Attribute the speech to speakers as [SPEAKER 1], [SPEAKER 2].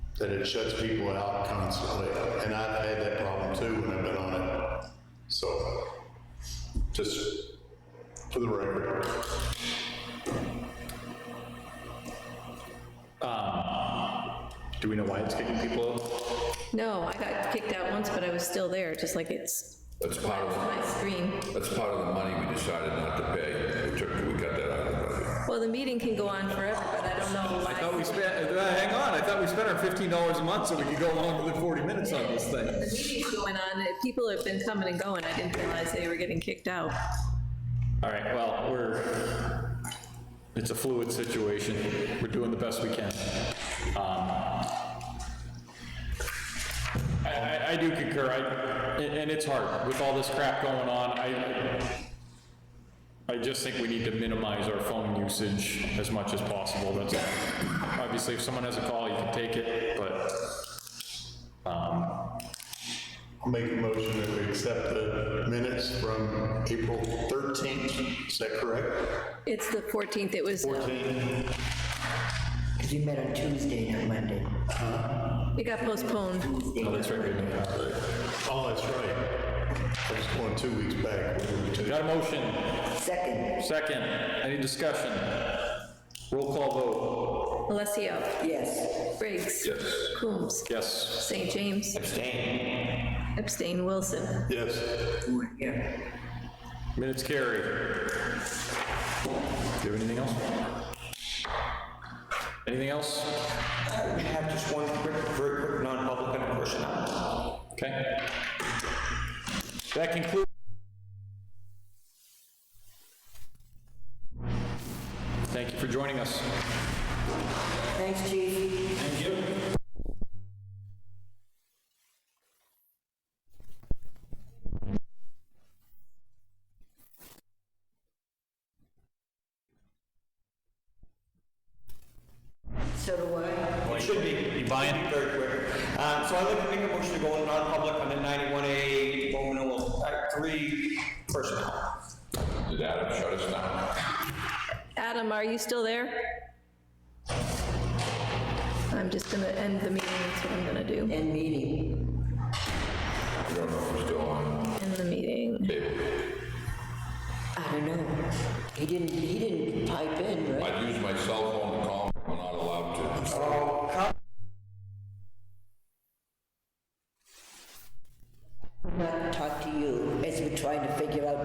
[SPEAKER 1] that it shuts people out constantly. And I've had that problem too when I've been on it. So, just for the record.
[SPEAKER 2] Do we know why it's kicking people out?
[SPEAKER 3] No, I got kicked out once, but I was still there, just like it's
[SPEAKER 4] That's part of,
[SPEAKER 3] my screen.
[SPEAKER 4] that's part of the money we decided not to pay. We took, we got that out of the budget.
[SPEAKER 3] Well, the meeting can go on forever, but I don't know why.
[SPEAKER 2] I thought we spent, uh, hang on, I thought we spent our fifteen dollars a month so we could go longer than forty minutes on this
[SPEAKER 3] The
[SPEAKER 2] thing.
[SPEAKER 3] meeting's going on, uh, people have been coming and going, I didn't realize they were getting kicked out.
[SPEAKER 2] All right, well, we're, it's a fluid situation. We're doing the best we can. Um, I, I, I do concur, I, and, and it's hard with all this crap going on. I, I just think we need to minimize our phone usage as much as possible. That's, all. obviously, if someone has a call, you can take it, but, um,
[SPEAKER 1] I'll make a motion that we accept the minutes from April 13th. Is that correct?
[SPEAKER 3] It's the 14th, it was, uh,
[SPEAKER 1] 14?
[SPEAKER 5] Because you met on Tuesday, not Monday.
[SPEAKER 3] it got postponed.
[SPEAKER 2] oh, that's right, we didn't have-
[SPEAKER 1] Oh, that's right. I was going two weeks back. We were two-
[SPEAKER 2] Got a motion?
[SPEAKER 5] Second,
[SPEAKER 2] Second, any discussion? Roll call vote.
[SPEAKER 3] Alessio,
[SPEAKER 5] yes.
[SPEAKER 3] Briggs,
[SPEAKER 4] Yes.
[SPEAKER 3] Coombs,
[SPEAKER 2] Yes.
[SPEAKER 3] St. James,
[SPEAKER 2] Abstain.
[SPEAKER 3] Epstein, Wilson.
[SPEAKER 1] Yes.
[SPEAKER 5] Yeah.
[SPEAKER 2] Minutes carry. Do you have anything else? Anything else?
[SPEAKER 6] I have just one quick, very quick non-public and a personnel.
[SPEAKER 2] Okay. That concludes. Thank you for joining us.
[SPEAKER 5] Thanks, chief. So do I.
[SPEAKER 6] It should be. You buying? Very quick. Uh, So I'd like to make a motion to go in non-public under 91A, Roman numeral uh, 3, personnel.
[SPEAKER 4] Did Adam shut us down?
[SPEAKER 3] Adam, are you still there? I'm just gonna end the meeting, that's what I'm gonna do,
[SPEAKER 5] End meeting.
[SPEAKER 4] I don't know if he's still on.
[SPEAKER 3] end the meeting.
[SPEAKER 4] Maybe.
[SPEAKER 5] I don't know. He didn't, he didn't pipe in, right?
[SPEAKER 4] I'd use my cell phone to call him. We're not allowed to.
[SPEAKER 6] Oh, come